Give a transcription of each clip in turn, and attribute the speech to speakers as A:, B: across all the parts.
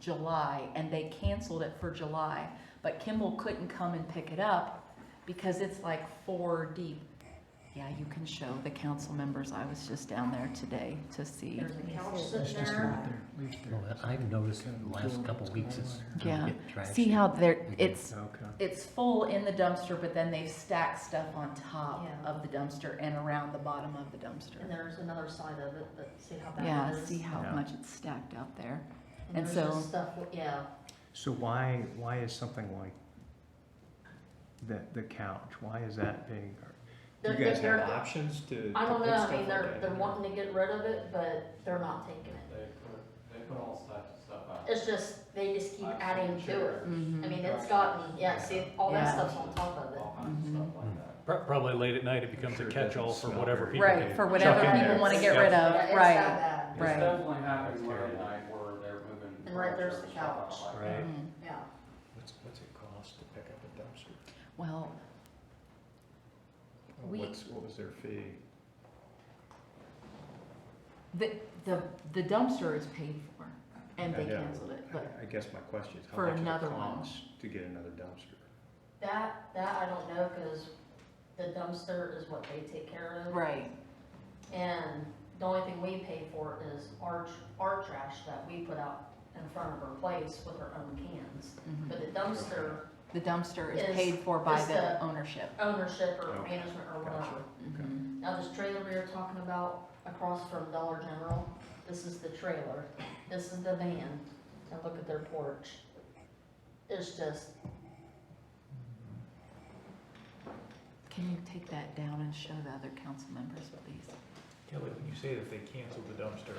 A: July, and they canceled it for July, but Kimball couldn't come and pick it up because it's like four deep. Yeah, you can show the council members, I was just down there today to see.
B: There's a couch
C: That's
B: sitting
C: just
B: there.
C: right there, leave there.
D: Well, I've noticed in the last couple of weeks it's kind
A: Yeah.
D: of get trashed.
A: See how there,
D: again.
A: it's,
C: Okay.
A: it's full in the dumpster, but then they've stacked stuff on top
B: Yeah.
A: of the dumpster and around the bottom of the dumpster.
B: And there's another side of it, but see how bad
A: Yeah,
B: it is?
A: see how
E: Yeah.
A: much it's stacked up there. and
B: there's
A: so-
B: just Stuff, yeah,
E: So why, why is something like the, the couch, why is that big? Do
B: They're-
E: you guys
B: they're-
E: have options to?
B: I
E: to
B: don't
E: put
B: know, I
E: stuff
B: mean,
E: like
B: they're,
E: that
B: they're
E: in?
B: wanting to get rid of it, but they're not taking it.
F: They put, they put all types of stuff out.
B: It's just, they just keep
F: I've
B: adding
F: seen
B: to it.
F: chairs,
B: I mean, it's
F: Mhm.
B: gotten, yeah, see, all that
A: Yeah.
B: stuff's on top of it.
F: All kinds of stuff like that.
G: Pro- Probably late at night, it becomes a
E: Sure
G: catch-all
E: doesn't
G: for
E: smell
G: whatever
E: very
G: people
E: good.
A: Right,
G: do.
A: for whatever
G: in
A: people
G: there.
A: want to get
G: Yeah.
A: rid
B: Yeah,
A: of,
B: it's that
A: right.
B: bad,
F: It's
A: Right.
F: definitely happened one night where they're moving.
B: And right there's the
F: furniture and
B: couch.
F: stuff out like that.
E: Right,
A: Mhm.
B: yeah.
C: What's, what's it cost to pick up a dumpster?
A: Well,
E: Well,
A: We-
E: what's, what was their fee?
A: the, the, the dumpster is paid for and they
E: Yeah.
A: canceled it, but
E: I- I guess my question is, how
A: For
E: much does
A: another
E: it
A: one.
E: cost to get another dumpster?
B: That, that I don't know, cause the dumpster is what they take care of.
A: Right,
B: And the only thing we pay for is our, tr- our trash that we put out in front of our place with our own cans.
A: mhm.
B: But the dumpster
A: the dumpster is
B: Is-
A: paid for by
B: is
A: the
B: the-
A: ownership.
B: ownership or
E: Okay,
B: management or whatever.
E: gotcha.
A: Mhm.
B: Now, this trailer we were talking about across from Dollar General, this is the trailer, this is the van, and look at their porch. It's just,
A: Can you take that down and show the other council members, please?
G: Kelly, when you say that they canceled the dumpster,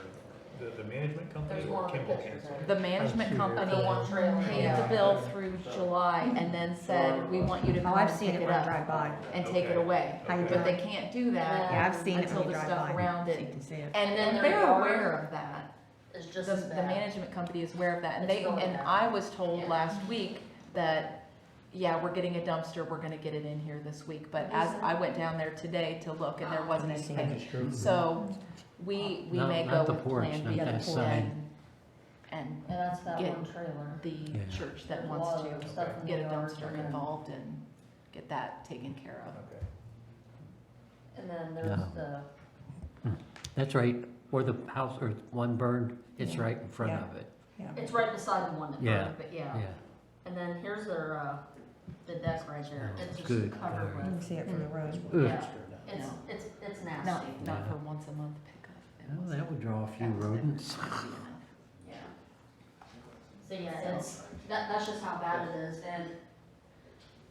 G: the, the management company
B: there's
G: or
B: one of the
G: Kimball
B: pictures
G: canceled?
A: The
B: there.
A: management
B: Of
A: company
B: the one trailer.
A: paid the
B: yeah.
A: bill through July and then said, we want you to
H: Oh,
A: come
H: I've
A: and
H: seen
A: pick
H: it
A: it
H: when I
A: up
H: drive by.
A: and take it
G: Okay.
A: away.
H: How you
G: Okay.
A: But they
H: doing?
A: can't do that
H: Yeah, I've seen it
A: until
H: when you
A: the
H: drive
A: stuff
H: by.
A: around
H: So
A: it.
H: you can see it.
A: And then
B: their
A: they're
B: yard
A: aware of that.
B: It's just
A: The,
B: as
A: the
B: bad.
A: management company is aware of that, and
B: It's
A: they,
B: going
A: and
B: down.
A: I was told
B: Yeah.
A: last week that, yeah, we're getting a dumpster, we're gonna get it in here this week, but as
B: Is it? Oh,
A: I went down there today to look, and there wasn't
H: I see
A: anything. So, we, we
D: No,
A: may go
D: not the
A: with
D: porch,
A: Plan
D: not
A: B
H: that
D: side.
A: and, and
B: Yeah, that's that
A: Get
B: one trailer.
A: the
D: Yeah.
A: church that
B: There's a
A: wants
B: lot of
A: to
B: stuff in
A: get a
B: the yard.
A: dumpster involved and get that taken care of.
G: Okay.
B: And then there's
D: No.
B: the,
D: That's right, where the house, or one burned, it's right in front
H: Yeah.
D: of it,
B: it's right beside the one that
D: Yeah.
B: burned, but yeah.
D: yeah.
B: And then here's their, uh, the deck right there,
D: Oh,
B: it's just
D: good
B: covered
H: You
D: lord.
B: with,
H: can see it from the road.
D: Ugh.
B: Yeah. it's,
A: No.
B: it's, it's
A: Not,
B: nasty,
A: not
D: Yeah.
A: for once a month pickup. It
D: Well,
A: wasn't-
D: that would draw a few
A: that was never
D: rodents.
A: gonna be enough.
B: yeah. So yeah, it's, that, that's just how bad it is, and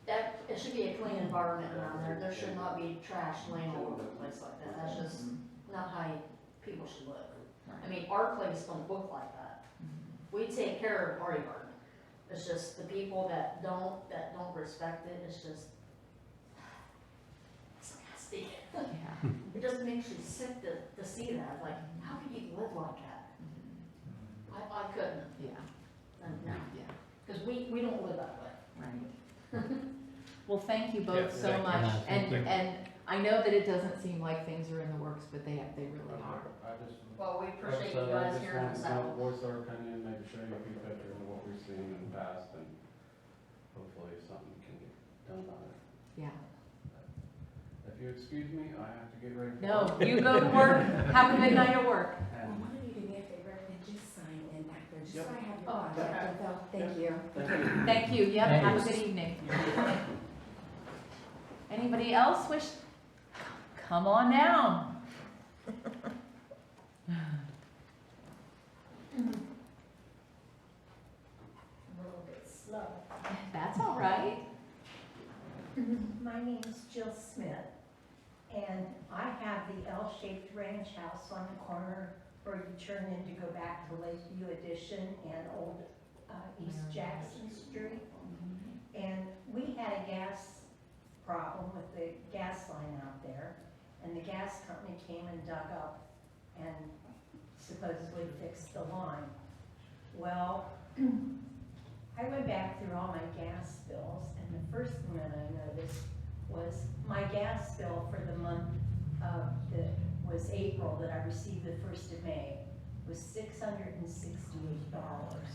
B: that, it should be a clean environment around there, there should not be trash laying all over the place like that, that's just not how you- people should live. I mean, our place don't look like that, we take care of our yard, it's just the people that don't, that don't respect it, it's just, it's nasty.
A: Mm, Yeah.
D: Hmm.
B: It just makes you sick to, to see that, like, how can you live like that? I, I couldn't,
A: Yeah,
B: and no,
A: yeah,
B: because we, we don't live that way.
A: right. Well, thank you
G: Yeah,
A: both so
G: thank you.
A: much,
D: Yeah,
A: and,
G: thank you.
A: and I know that it doesn't seem like things are in the works, but they, they really are.
F: I just.
B: Well, we appreciate you
F: Like I said, I
B: guys
F: just
B: hearing
F: want
B: us
F: to
B: out.
F: Voice our opinion, maybe show you a few pictures of what we've seen in the past and hopefully something can get done about it.
A: Yeah.
F: If you excuse me, I have to get ready. for
A: No,
F: work.
A: you go to work, have a good night at work.
F: And-
I: Why don't you do me a favor and just sign in back there, just
F: Yep.
I: so I have your
B: Oh,
I: contact info, thank you.
A: Thank you, yep, have a
D: Thanks.
A: good evening. Anybody else wish, come on down.
I: A little bit slow.
A: That's all right.
I: My name's Jill Smith, and I have the L-shaped ranch house on the corner where you turn in to go back to Lakeview Addition and Old uh, East Jackson Street. And we had a gas problem with the gas line out there, and the gas company came and dug up and supposedly fixed the line. Well, I went back through all my gas bills, and the first thing that I noticed was my gas bill for the month of, that was April, that I received the first of May, was six hundred and sixty-eight dollars.